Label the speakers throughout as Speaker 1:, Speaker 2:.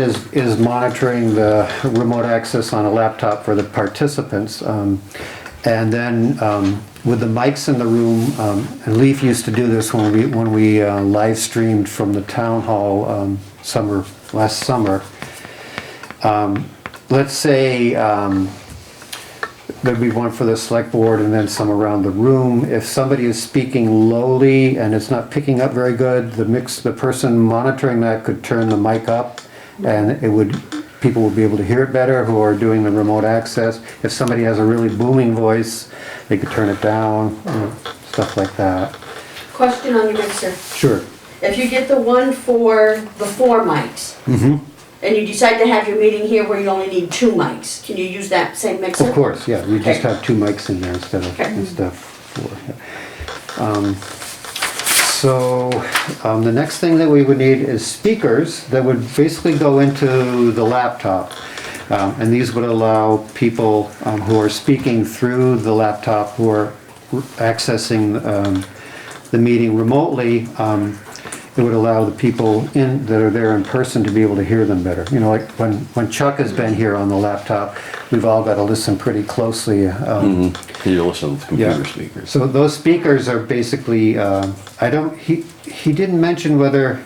Speaker 1: is, is monitoring the remote access on a laptop for the participants. um, And then um, with the mics in the room, um, and Leaf used to do this when we, when we uh, live streamed from the town hall um, summer, last summer. Um, Let's say um, there'd be one for the select board and then some around the room. If somebody is speaking lowly and it's not picking up very good, the mix, the person monitoring that could turn the mic up and it would, people would be able to hear it better who are doing the remote access. If somebody has a really booming voice, they could turn it down, you know, stuff like that.
Speaker 2: Question on your mixer.
Speaker 1: Sure.
Speaker 2: If you get the one for the four mics,
Speaker 1: Mm-hmm.
Speaker 2: and you decide to have your meeting here where you only need two mics, can you use that same mixer?
Speaker 1: Of course, yeah, we just
Speaker 2: Okay.
Speaker 1: have two mics in there instead of,
Speaker 2: Okay.
Speaker 1: instead of four. yeah. Um, So, um, the next thing that we would need is speakers that would basically go into the laptop. Um, and these would allow people, um, who are speaking through the laptop, who are accessing, um, the meeting remotely, um, it would allow the people in, that are there in person to be able to hear them better. You know, like when, when Chuck has been here on the laptop, we've all got to listen pretty closely. um,
Speaker 3: You listen to computer
Speaker 1: Yeah.
Speaker 3: speakers.
Speaker 1: So those speakers are basically, um, I don't, he, he didn't mention whether,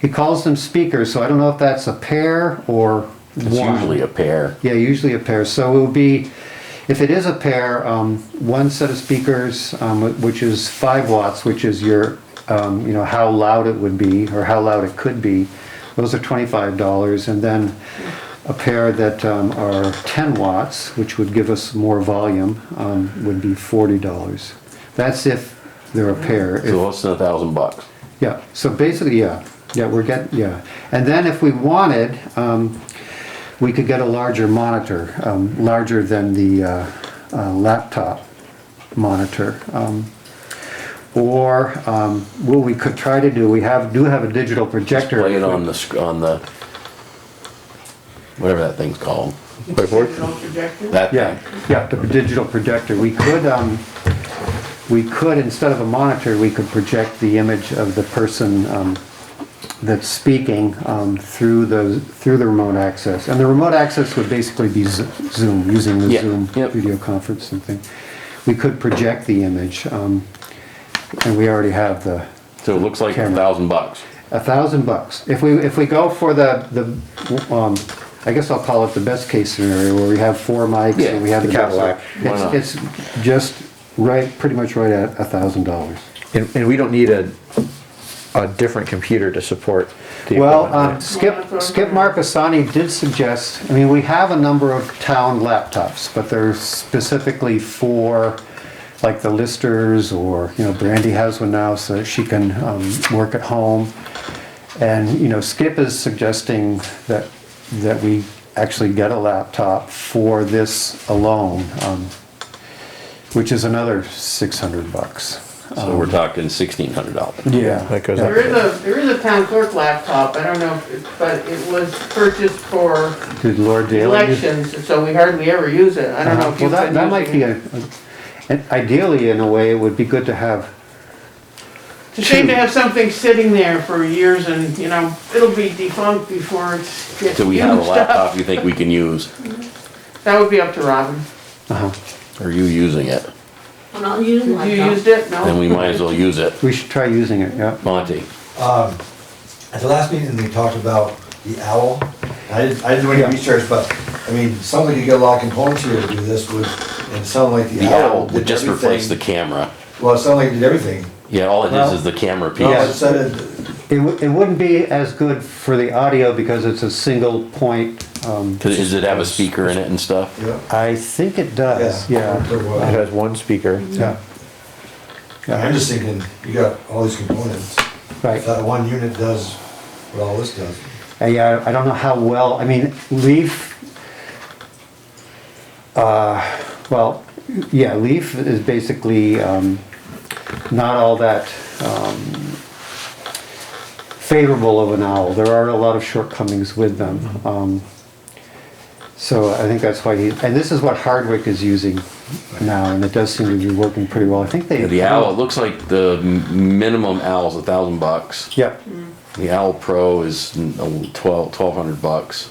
Speaker 1: he calls them speakers, so I don't know if that's a pair or
Speaker 3: It's
Speaker 1: one.
Speaker 3: usually a pair.
Speaker 1: Yeah, usually a pair. So it would be, if it is a pair, um, one set of speakers, um, which is five watts, which is your, um, you know, how loud it would be or how loud it could be. Those are twenty-five dollars, and then a pair that um, are ten watts, which would give us more volume, um, would be forty dollars. That's if they're a pair. If-
Speaker 3: So less than a thousand bucks.
Speaker 1: yeah, so basically, yeah, yeah, we're getting, yeah. And then if we wanted, um, we could get a larger monitor, um, larger than the, uh, uh, laptop monitor. Um, Or, um, what we could try to do, we have, do have a digital projector.
Speaker 3: Play it on the, sc- on the, whatever that thing's called. That
Speaker 1: Yeah,
Speaker 3: thing.
Speaker 1: yeah, the digital projector. We could, um, we could, instead of a monitor, we could project the image of the person, um, that's speaking, um, through the, through the remote access. And the remote access would basically be Zo- Zoom, using the
Speaker 3: Yeah,
Speaker 1: Zoom
Speaker 3: yep.
Speaker 1: video conference and thing. We could project the image, um, and we already have the,
Speaker 3: So it looks like a
Speaker 1: Camera.
Speaker 3: thousand bucks.
Speaker 1: a thousand bucks. If we, if we go for the, the, um, I guess I'll call it the best case scenario where we have four mics
Speaker 3: Yeah,
Speaker 1: and we have
Speaker 4: the
Speaker 1: the.
Speaker 4: Cadillac.
Speaker 3: Why not?
Speaker 1: It's, it's just right, pretty much right at a thousand dollars.
Speaker 4: And, and we don't need a, a different computer to support the
Speaker 1: Well,
Speaker 4: equipment,
Speaker 1: um, Skip, Skip Marcassani did suggest, I mean, we have a number of town laptops, but they're specifically for, like, the listers, or, you know, Brandy has one now, so she can, um, work at home. And, you know, Skip is suggesting that, that we actually get a laptop for this alone, um, which is another six hundred bucks.
Speaker 3: So we're talking sixteen hundred dollars.
Speaker 1: Um, Yeah.
Speaker 4: That goes
Speaker 5: There is a, there is a town clerk laptop, I don't know, if it- but it was purchased for
Speaker 1: Did Lord Daley? use-
Speaker 5: elections, so we hardly ever use it. I don't know
Speaker 1: Uh,
Speaker 5: if
Speaker 1: Well,
Speaker 5: you've
Speaker 1: that,
Speaker 5: been
Speaker 1: that might be
Speaker 5: using it.
Speaker 1: a, and ideally, in a way, it would be good to have,
Speaker 5: It's a shame to have something sitting there for years and, you know, it'll be defunct before it's gets
Speaker 3: So we have a
Speaker 5: used up.
Speaker 3: laptop you think we can use?
Speaker 5: That would be up to Robin.
Speaker 1: uh-huh,
Speaker 3: Are you using it?
Speaker 2: I'm not using
Speaker 5: Have you
Speaker 2: laptop.
Speaker 5: used it? No?
Speaker 3: Then we might as well use it.
Speaker 1: we should try using it, yeah.
Speaker 3: Monty,
Speaker 6: At the last meeting, we talked about the owl. I didn't, I didn't do any
Speaker 1: Yeah.
Speaker 6: research, but, I mean, somebody could get a lot of components here to do this with, and it sounded like the
Speaker 3: the owl
Speaker 6: owl did
Speaker 3: would just replace the
Speaker 6: everything.
Speaker 3: camera.
Speaker 6: Well, it sounded like it did everything.
Speaker 3: Yeah, all it
Speaker 1: Well-
Speaker 3: is is the camera
Speaker 6: No, it
Speaker 3: piece.
Speaker 6: said it,
Speaker 1: It, wou- it wouldn't be as good for the audio because it's a single point, um,
Speaker 3: 'Cause Does it have a speaker in it and stuff?
Speaker 6: yeah.
Speaker 1: I think it does, yeah,
Speaker 6: There
Speaker 4: It
Speaker 6: was.
Speaker 4: has one speaker.
Speaker 1: yeah.
Speaker 6: I'm
Speaker 1: Yeah,
Speaker 6: just thinking, you got all these components.
Speaker 1: right.
Speaker 6: If that one unit does what all this does,
Speaker 1: Uh, Yeah, I don't know how well, I mean, Leaf, uh, well, yeah, Leaf is basically um, not all that um,
Speaker 3: Mm-hmm.
Speaker 1: favorable of an owl. There are a lot of shortcomings with them. Um, So I think that's why he, and this is what Hardwick is using now, and it does seem to be working pretty well. I think they.
Speaker 3: The owl, it looks like the m- minimum owl's a thousand bucks.
Speaker 1: Yep.
Speaker 3: The owl pro is mm, a- twelve, twelve hundred bucks.